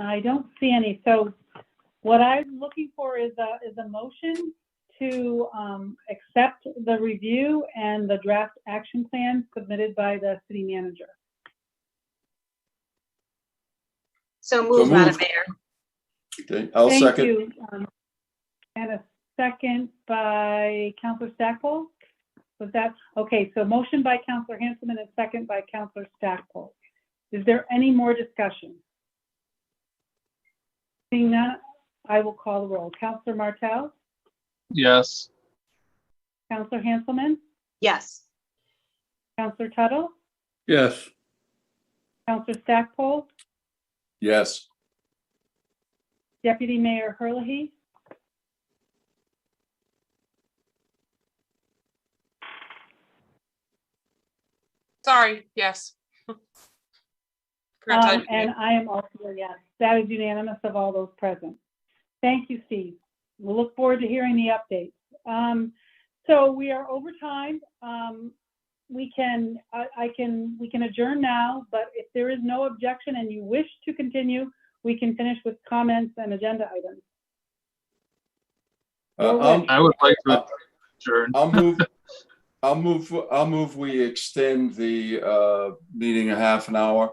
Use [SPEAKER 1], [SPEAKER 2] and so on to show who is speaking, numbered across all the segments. [SPEAKER 1] I don't see any. So what I'm looking for is a, is a motion to um, accept the review and the draft action plan submitted by the city manager.
[SPEAKER 2] So moved, Madam
[SPEAKER 3] moved.
[SPEAKER 2] Mayor.
[SPEAKER 3] Okay, I'll
[SPEAKER 1] Thank
[SPEAKER 3] second.
[SPEAKER 1] you, um, And a second by Counselor Stackpole? Was that, okay, so motion by Counselor Hanselman and a second by Counselor Stackpole. Is there any more discussion? Seeing none, I will call the roll. Counselor Martell?
[SPEAKER 4] Yes.
[SPEAKER 1] Counselor Hanselman?
[SPEAKER 2] Yes.
[SPEAKER 1] Counselor Tuttle?
[SPEAKER 4] Yes.
[SPEAKER 1] Counselor Stackpole?
[SPEAKER 3] Yes,
[SPEAKER 1] Deputy Mayor Herlihy?
[SPEAKER 5] Sorry, yes. Forgot to
[SPEAKER 1] Um,
[SPEAKER 5] unmute.
[SPEAKER 1] And I am also a yes. That is unanimous of all those present. Thank you, Steve. We'll look forward to hearing the updates. Um, So we are over time. Um, We can, I I can, we can adjourn now, but if there is no objection and you wish to continue, we can finish with comments and agenda items.
[SPEAKER 3] Uh,
[SPEAKER 1] Go
[SPEAKER 3] I'll,
[SPEAKER 4] I would like to adjourn.
[SPEAKER 3] I'll move, I'll move, I'll move, we extend the, uh, meeting a half an hour.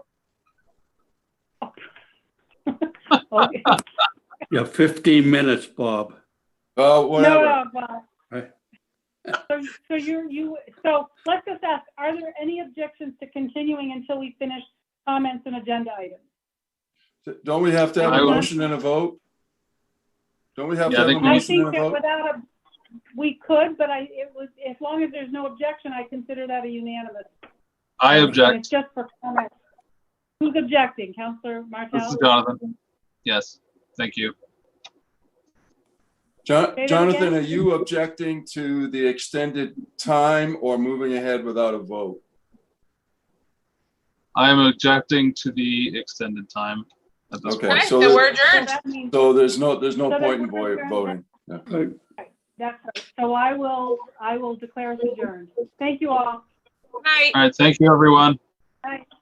[SPEAKER 1] Okay.
[SPEAKER 6] Yeah, 15 minutes, Bob.
[SPEAKER 3] Uh,
[SPEAKER 1] No,
[SPEAKER 3] whatever,
[SPEAKER 1] no, but-
[SPEAKER 6] Right.
[SPEAKER 1] So, so you're, you, so let's just ask, are there any objections to continuing until we finish comments and agenda items?
[SPEAKER 3] don't we have to have
[SPEAKER 4] I
[SPEAKER 3] a
[SPEAKER 4] will-
[SPEAKER 3] motion and a vote? Don't we have to
[SPEAKER 4] Yeah, I
[SPEAKER 3] have a
[SPEAKER 4] think we need-
[SPEAKER 1] I
[SPEAKER 3] motion
[SPEAKER 1] think
[SPEAKER 3] and a
[SPEAKER 1] that
[SPEAKER 3] vote?
[SPEAKER 1] without a, we could, but I, it was, as long as there's no objection, I consider that a unanimous.
[SPEAKER 4] I
[SPEAKER 1] And
[SPEAKER 4] object.
[SPEAKER 1] It's just for comment. Who's objecting? Counselor
[SPEAKER 4] This is
[SPEAKER 1] Martell?
[SPEAKER 4] Jonathan. Yes, thank you.
[SPEAKER 3] Jon-
[SPEAKER 1] that
[SPEAKER 3] Jonathan,
[SPEAKER 1] again.
[SPEAKER 3] are you objecting to the extended time or moving ahead without a vote?
[SPEAKER 4] I am objecting to the extended time at this
[SPEAKER 3] Okay.
[SPEAKER 4] point.
[SPEAKER 5] Okay,
[SPEAKER 3] so
[SPEAKER 5] so
[SPEAKER 3] the-
[SPEAKER 5] we're
[SPEAKER 1] So
[SPEAKER 5] adjourned.
[SPEAKER 1] that means,
[SPEAKER 3] So there's no, there's no
[SPEAKER 1] So then
[SPEAKER 3] point in
[SPEAKER 1] we're
[SPEAKER 3] vo-
[SPEAKER 1] adjourned.
[SPEAKER 3] voting.
[SPEAKER 6] Uh,
[SPEAKER 1] that's, right. so I will, I will declare it adjourned. Thank you all.
[SPEAKER 5] Good night.
[SPEAKER 4] All right, thank you, everyone.
[SPEAKER 1] Bye.